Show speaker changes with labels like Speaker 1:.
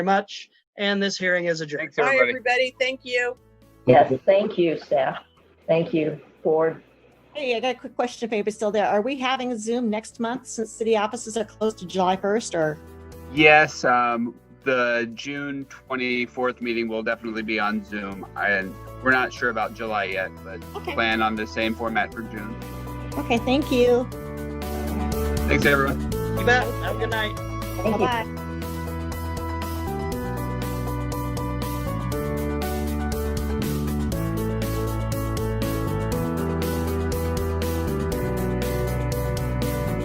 Speaker 1: much. And this hearing is adjourned.
Speaker 2: Thanks,
Speaker 3: Bye,
Speaker 2: everybody.
Speaker 3: everybody. Thank you.
Speaker 4: Yes, thank you, staff. Thank you, board.
Speaker 5: Hey, I got a quick question if anybody's still there. Are we having Zoom next month since city offices are closed to July 1st or?
Speaker 2: Yes, um, the June 24th meeting will definitely be on Zoom. And we're not sure about July yet, but
Speaker 5: Okay,
Speaker 2: plan on the same format for June.
Speaker 5: okay, thank you.
Speaker 2: Thanks, everyone.
Speaker 1: You bet. Have a good night.
Speaker 4: Thank you.
Speaker 5: Bye-bye.